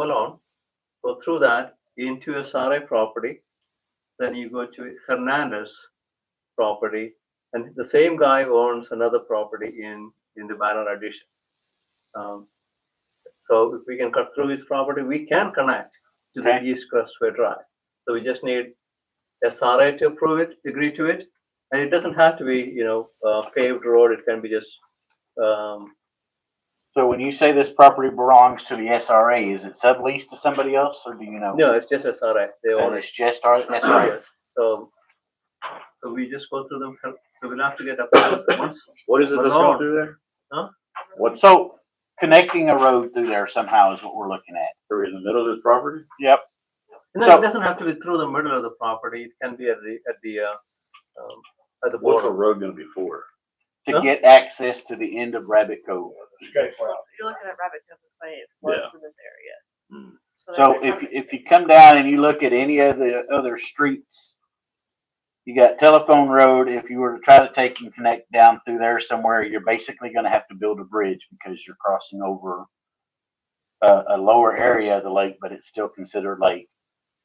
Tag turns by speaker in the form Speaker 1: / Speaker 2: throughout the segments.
Speaker 1: Malone, go through that into SRA property, then you go to Hernandez property, and the same guy owns another property in, in the Banner addition. Um, So if we can cut through his property, we can connect to the
Speaker 2: Okay.
Speaker 1: East Crestway Drive. So we just need SRA to approve it, agree to it, and it doesn't have to be, you know, uh, paved road, it can be just, um,
Speaker 2: So when you say this property belongs to the SRA, is it subleased to somebody else or do you know?
Speaker 1: no, it's just SRA, they own
Speaker 2: And
Speaker 1: it.
Speaker 2: it's just our SRA?
Speaker 1: Yes, So, so we just go through them, so we'll have to get approvals once.
Speaker 3: What is it that's
Speaker 1: Malone.
Speaker 3: going through there?
Speaker 2: What, so connecting a road through there somehow is what we're looking at.
Speaker 3: Are we in the middle of this property?
Speaker 2: Yep.
Speaker 1: No,
Speaker 2: So-
Speaker 1: it doesn't have to be through the middle of the property, it can be at the, at the, uh, um, at the
Speaker 3: What's a
Speaker 1: border.
Speaker 3: road gonna be for?
Speaker 1: Huh?
Speaker 2: To get access to the end of Rabbit Cove.
Speaker 4: You're looking at rabbit because it's funny, it
Speaker 3: Yeah.
Speaker 4: floods in this area.
Speaker 3: Hmm.
Speaker 4: that's
Speaker 2: So
Speaker 4: what
Speaker 2: if,
Speaker 4: happened.
Speaker 2: if you come down and you look at any of the other streets, you got Telephone Road, if you were to try to take and connect down through there somewhere, you're basically gonna have to build a bridge because you're crossing over a, a lower area of the lake, but it's still considered lake.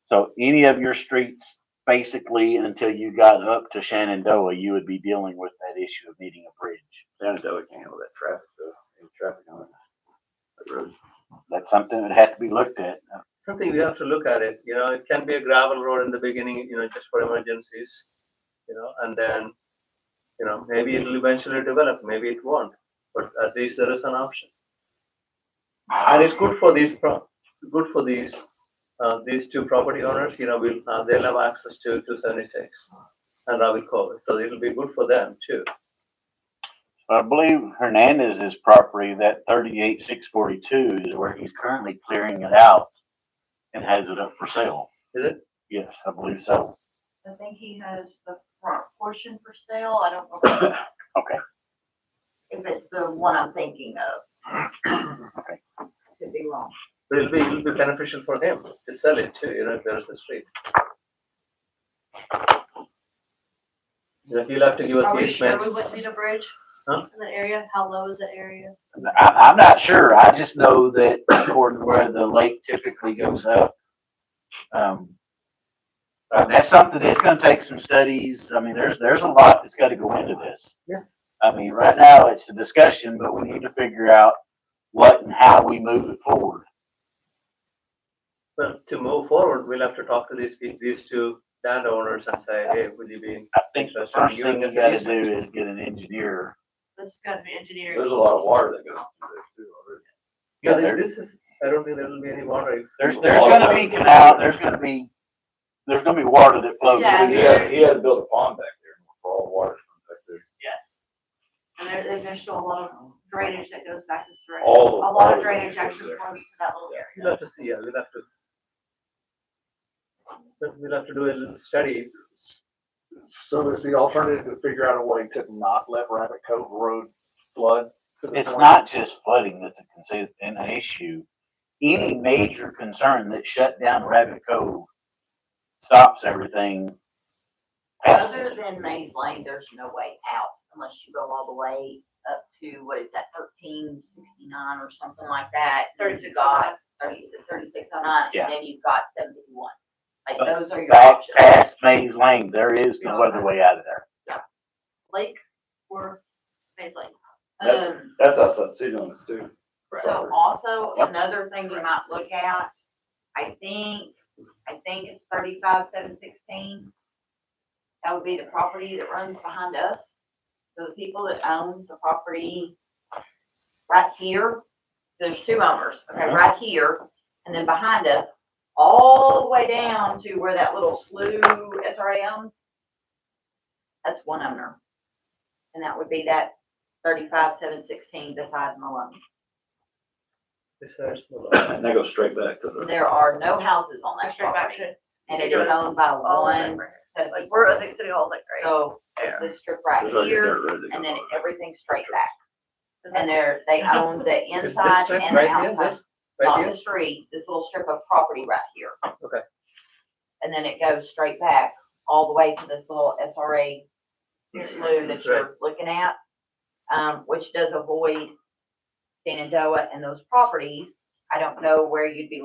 Speaker 2: So any of your streets, basically, until you got up to Shenandoah, you would be dealing with that issue of needing a bridge.
Speaker 3: Shenandoah can't handle that traffic, though. Any traffic on that- that road.
Speaker 2: That's something that had to be looked at.
Speaker 1: Something we have to look at it, you know, it can be a gravel road in the beginning, you know, just for emergencies, you know, and then, you know, maybe it'll eventually develop, maybe it won't, but at least there is an option. And it's good for these, pro- good for these, uh, these two property owners, you know, will, uh, they'll have access to two seventy-six and Ravi Cove, so it'll be good for them too.
Speaker 2: I believe Hernandez's property, that thirty-eight, six forty-two is where he's currently clearing it out and has it up for sale.
Speaker 1: Is it?
Speaker 2: Yes, I believe so.
Speaker 5: I think he has the front portion for sale, I don't know.
Speaker 2: Okay.
Speaker 5: If it's the one I'm thinking of.
Speaker 2: Okay.
Speaker 5: Could be wrong.
Speaker 1: But it'll be, it'll be beneficial for him to sell it too, you know, if there is a street. You know, he'll have to give us
Speaker 4: Are we sure
Speaker 1: easement.
Speaker 4: we wouldn't need a bridge?
Speaker 1: Huh?
Speaker 4: In that area, how low is that area?
Speaker 2: I, I'm not sure. I just know that according to where the lake typically goes up. Um, uh, that's something that's gonna take some studies. I mean, there's, there's a lot that's gotta go into this.
Speaker 1: Yeah.
Speaker 2: I mean, right now it's a discussion, but we need to figure out what and how we move it forward.
Speaker 1: Well, to move forward, we'll have to talk to these, peo- these two landowners and say, hey, will you be?
Speaker 2: I think the
Speaker 1: Interested in
Speaker 2: first
Speaker 1: giving
Speaker 2: thing we
Speaker 1: us an
Speaker 2: gotta
Speaker 1: easement.
Speaker 2: do is get an engineer.
Speaker 4: This is gonna be engineering.
Speaker 3: There's a lot of water that goes through there too. already.
Speaker 1: Yeah,
Speaker 2: there-
Speaker 1: this is, I don't think there'll be any water. if-
Speaker 2: There's, there's gonna be canal, there's gonna be, there's gonna be water that flows
Speaker 4: Yeah,
Speaker 2: through
Speaker 3: He
Speaker 2: there.
Speaker 3: had, he had to build a pond back there for all the water to come back there.
Speaker 4: Yes.
Speaker 5: And there, and there's still a lot of drainage that goes back this direction.
Speaker 3: All the-
Speaker 5: A lot
Speaker 3: all the
Speaker 5: of drainage
Speaker 3: drainage
Speaker 5: actually
Speaker 3: goes there.
Speaker 5: flows to that little area.
Speaker 1: We'll have to see, yeah, we'll have to. But We'll have to do a little study.
Speaker 6: So is the alternative to figure out a way to not let Rabbit Cove Road flood? to the
Speaker 2: It's
Speaker 6: point-
Speaker 2: not just flooding that's a consi- an issue. Any major concern that shut down Rabbit Cove stops everything. past
Speaker 5: Other
Speaker 2: it.
Speaker 5: than Maze Lane, there's no way out unless you go all the way up to, what is that, thirteen sixty-nine or something like that. and then you've
Speaker 4: 36
Speaker 5: got Thirty, thirty-six oh nine,
Speaker 2: Yeah. Uh,
Speaker 5: and then you've got seventy-one. Like,
Speaker 2: But
Speaker 5: those are your
Speaker 2: Back
Speaker 5: options.
Speaker 2: past Maze Lane, there is no other way out of there.
Speaker 4: Lake or Maze Lake?
Speaker 3: That's,
Speaker 5: Um,
Speaker 3: that's outside the city limits too.
Speaker 5: So
Speaker 3: Right.
Speaker 5: also,
Speaker 2: Yep.
Speaker 5: another thing you might look at, I think, I think it's thirty-five, seven sixteen. That would be the property that runs behind us. So the people that own the property right here, there's two owners, okay,
Speaker 2: Uh-huh.
Speaker 5: right here, and then behind us, all the way down to where that little slough SRA owns. That's one owner. And that would be that thirty-five, seven sixteen beside Malone.
Speaker 1: Besides, we'll-
Speaker 3: And that goes straight back to the,
Speaker 5: There are no houses on
Speaker 4: Or
Speaker 5: that
Speaker 4: straight back
Speaker 5: property,
Speaker 4: to
Speaker 5: and it is owned by
Speaker 4: all the way
Speaker 5: one
Speaker 4: over here.
Speaker 5: set of
Speaker 4: Like,
Speaker 5: people.
Speaker 4: we're, I think City Hall's like, right?
Speaker 5: So,
Speaker 4: there.
Speaker 5: this strip right
Speaker 3: there's already a
Speaker 5: here,
Speaker 3: dirt road that
Speaker 5: and then
Speaker 3: goes on.
Speaker 5: everything straight back, and they're, they own the
Speaker 1: Is this
Speaker 5: inside
Speaker 1: strip
Speaker 5: and the
Speaker 1: right here,
Speaker 5: outside,
Speaker 1: this, right
Speaker 5: not
Speaker 1: here?
Speaker 5: the street, this little strip of property right here.
Speaker 1: Okay.
Speaker 5: And then it goes straight back, all the way to this little SRA slough that you're looking at, um, which does avoid Shenandoah and those properties. I don't know where you'd be